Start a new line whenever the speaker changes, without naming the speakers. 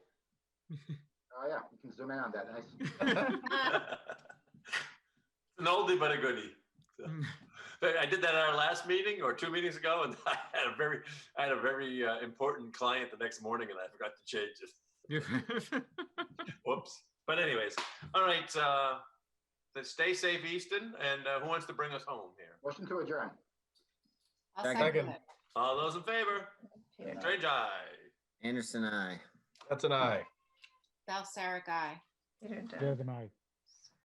Oh, yeah, you can zoom in on that. Nice.
An oldie but a goodie. But I did that at our last meeting or two meetings ago, and I had a very, I had a very uh, important client the next morning, and I forgot to change it. Whoops. But anyways, all right. Uh, then stay safe, Easton. And uh, who wants to bring us home here?
Motion to adjourn.
I'll
Second.
second it.
All those in favor?
Yeah.
Strange eye.
Anderson, I.
That's an eye.
Val Sarah guy.
Didn't, uh,
Good night.